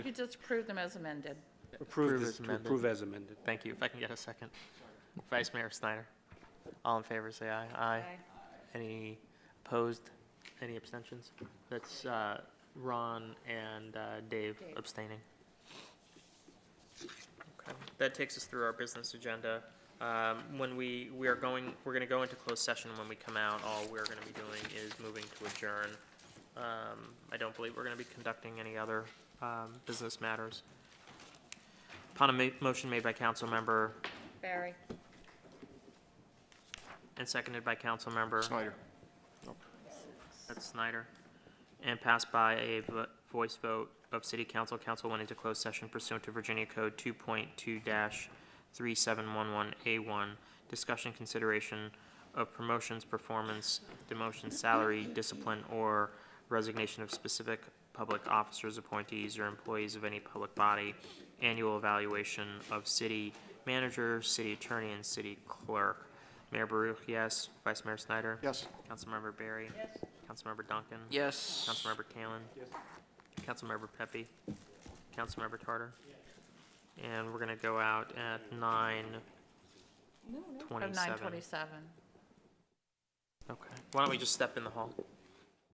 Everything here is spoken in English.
could just approve them as amended. Approve Approve this, as to amended. approve as amended. Thank you. If I can get a second. Vice Mayor Snyder. All in favor, say aye. Aye. Any opposed? Any abstentions? That's uh, Ron and uh, Dave Dave. abstaining. Okay, That takes us through our business agenda. Um, When we, we are going, we're going to go into closed session. When we come out, all we're going to be doing is moving to adjourn. Um, I don't believe we're going to be conducting any other um, business matters. Upon a ma- motion made by council member Barry? and seconded by council member. Snyder. That's Snyder. And passed by a vo- voice vote of city council. Council went into closed session pursuant to Virginia Code 2.2-3711A1. Discussion, consideration of promotions, performance, demotion, salary, discipline, or resignation of specific public officers, appointees, or employees of any public body. Annual evaluation of city manager, city attorney, and city clerk. Mayor Baruch, yes. Vice Mayor Snyder? Yes. Councilmember Barry? Yes. Councilmember Duncan? Yes. Councilmember Kalen? Yes. Councilmember Pepe? Councilmember Tartar? And we're gonna go out at nine, Of 27. 927. okay. Why don't we just step in the hall?